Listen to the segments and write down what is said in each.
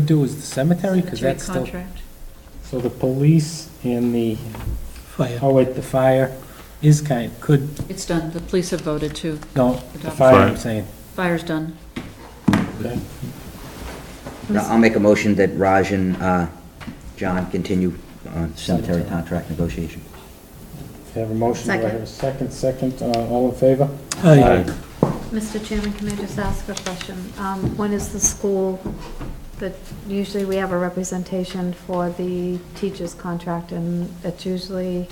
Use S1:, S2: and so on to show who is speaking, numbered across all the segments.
S1: do is the cemetery, because
S2: Cemetery
S1: that's still,
S2: contract.
S1: so the police and the,
S3: Fire.
S1: oh wait, the fire is kind, could,
S2: It's done, the police have voted to,
S1: no, the
S2: Adopt.
S1: fire, I'm
S4: Fire.
S1: saying.
S2: fire's done.
S5: I'll make a motion that Raj and uh, John continue on cemetery contract negotiation.
S1: Have a motion, do I have a second, second, uh, all in favor?
S3: Aye.
S6: Mr. Chairman, can I just ask a question? Um, When is the school, that, usually we have a representation for the teacher's contract, and it's usually,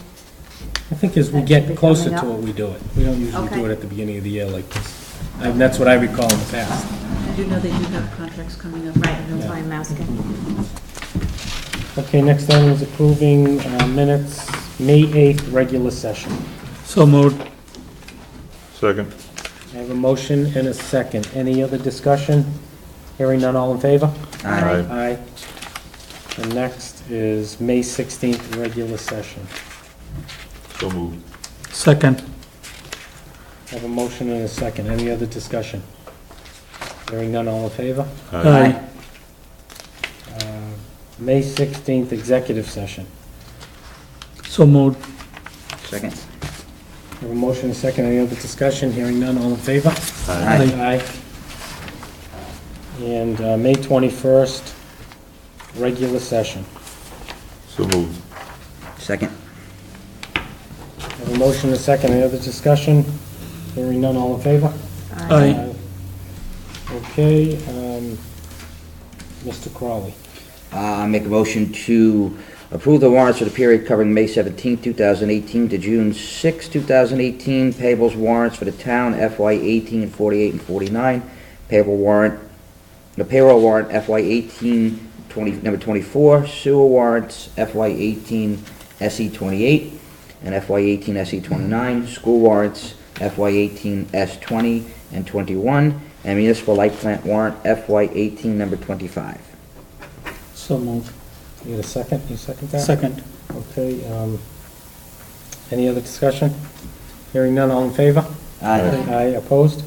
S1: I think as we
S6: That should
S1: get
S6: be
S1: closer
S6: coming
S1: to
S6: up.
S1: it, we do it. We don't usually do
S6: Okay.
S1: it at the beginning of the year like this. And that's what I recall in the past.
S2: I do know they do have contracts coming up.
S6: right, that's why I'm asking.
S1: Okay, next item is approving uh, minutes, May 8th, regular session.
S3: So moved.
S4: Second.
S1: I have a motion and a second. Any other discussion? Hearing none, all in favor?
S5: Aye.
S1: Aye. And next is May 16th, regular session.
S4: So moved.
S3: Second.
S1: I have a motion and a second. Any other discussion? Hearing none, all in favor?
S3: Aye.
S1: Uh, May 16th, executive session.
S3: So moved.
S5: Second?
S1: I have a motion and a second. Any other discussion? Hearing none, all in favor?
S5: Aye.
S1: Aye. And uh, May 21st, regular session.
S4: So moved.
S5: Second?
S1: I Have a motion and a second, any other discussion? Hearing none, all in favor?
S3: Aye.
S1: Okay, um, Mr. Crowley.
S5: Uh, Make a motion to approve the warrants for the period covering May 17, 2018 to June 6, 2018. Payables warrants for the town FY 18, 48, and 49. Payable warrant, the payroll warrant FY 18, 20, number 24. Sewer warrants FY 18, SE 28, E and FY 18, SE 29. E School warrants FY 18, S 20 and 21. And municipal light plant warrant FY 18, number 25.
S3: So moved.
S1: You get a second, you second that?
S3: Second.
S1: Okay, um, any other discussion? Hearing none, all in favor?
S5: Aye.
S1: Aye, opposed?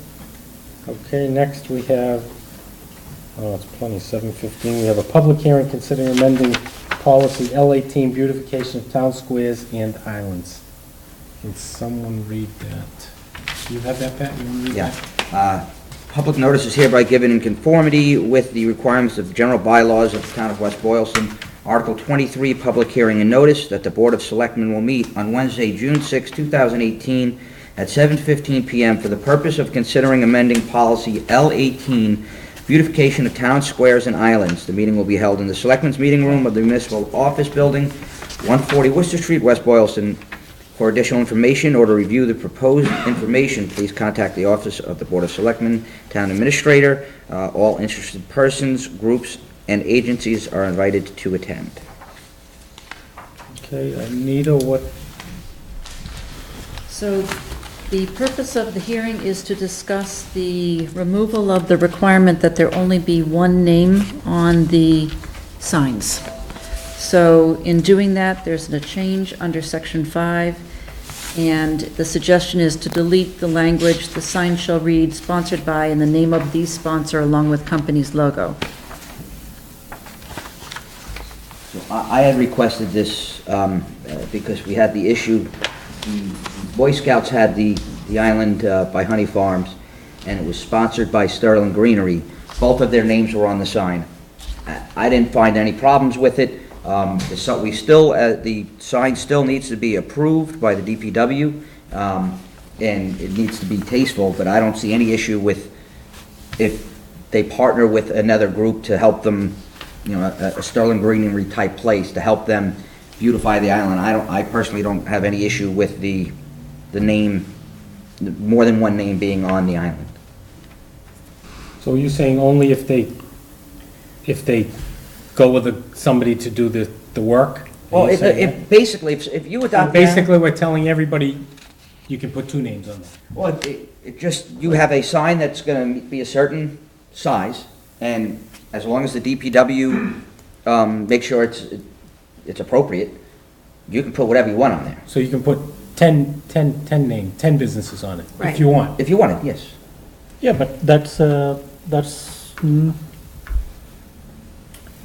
S1: Okay, next we have, oh, it's plenty, 7:15, we have a public hearing considering amending policy L-18 beautification of town squares and islands. Can someone read that? Do you have that, Pat? You want to read
S5: Yeah.
S1: that?
S5: Uh, Public notice is hereby given in conformity with the requirements of general bylaws of the town of West Boylston. Article 23, public hearing and notice that the Board of Selectmen will meet on Wednesday, June 6, 2018, at 7:15 PM for the purpose of considering amending policy L-18, beautification of town squares and islands. The meeting will be held in the Selectmen's Meeting Room of the Municipal Office Building, 140 Worcester Street, West Boylston, for additional information or to review the proposed information, please contact the Office of the Board of Selectmen, Town Administrator. Uh, All interested persons, groups, and agencies are invited to attend.
S1: Okay, Anita, what,
S2: So the purpose of the hearing is to discuss the removal of the requirement that there only be one name on the signs. So in doing that, there's a change under Section 5, and the suggestion is to delete the language, "The sign shall read sponsored by and the name of the sponsor along with company's logo."
S5: So I I had requested this um, uh, because we had the issue, Boy Scouts had the, the island uh, by Honey Farms, and it was sponsored by Sterling Greenery. Both of their names were on the sign. I- I didn't find any problems with it. Um, the si- We still, uh, the sign still needs to be approved by the DPW, um, and it needs to be tasteful, but I don't see any issue with if they partner with another group to help them, you know, a a Sterling Greenery type place to help them beautify the island. I don't, I personally don't have any issue with the, the name, the- more than one name being on the island.
S1: so you're saying only if they, if they go with a- somebody to do the, the work?
S5: Well,
S1: Are you
S5: if,
S1: saying that?
S5: if, basically, if if you
S1: So
S5: adopt.
S1: Basically, we're telling everybody, you can put two names on there.
S5: Well, it, it just, you have a sign that's gonna be a certain size, and as long as the DPW, um, make sure it's, it's appropriate, you can put whatever you want on there,
S1: So you can put 10, 10, 10 name, 10 businesses on it, if
S6: Right.
S1: you want.
S5: if you want it, yes.
S3: Yeah, but that's, uh, that's mm,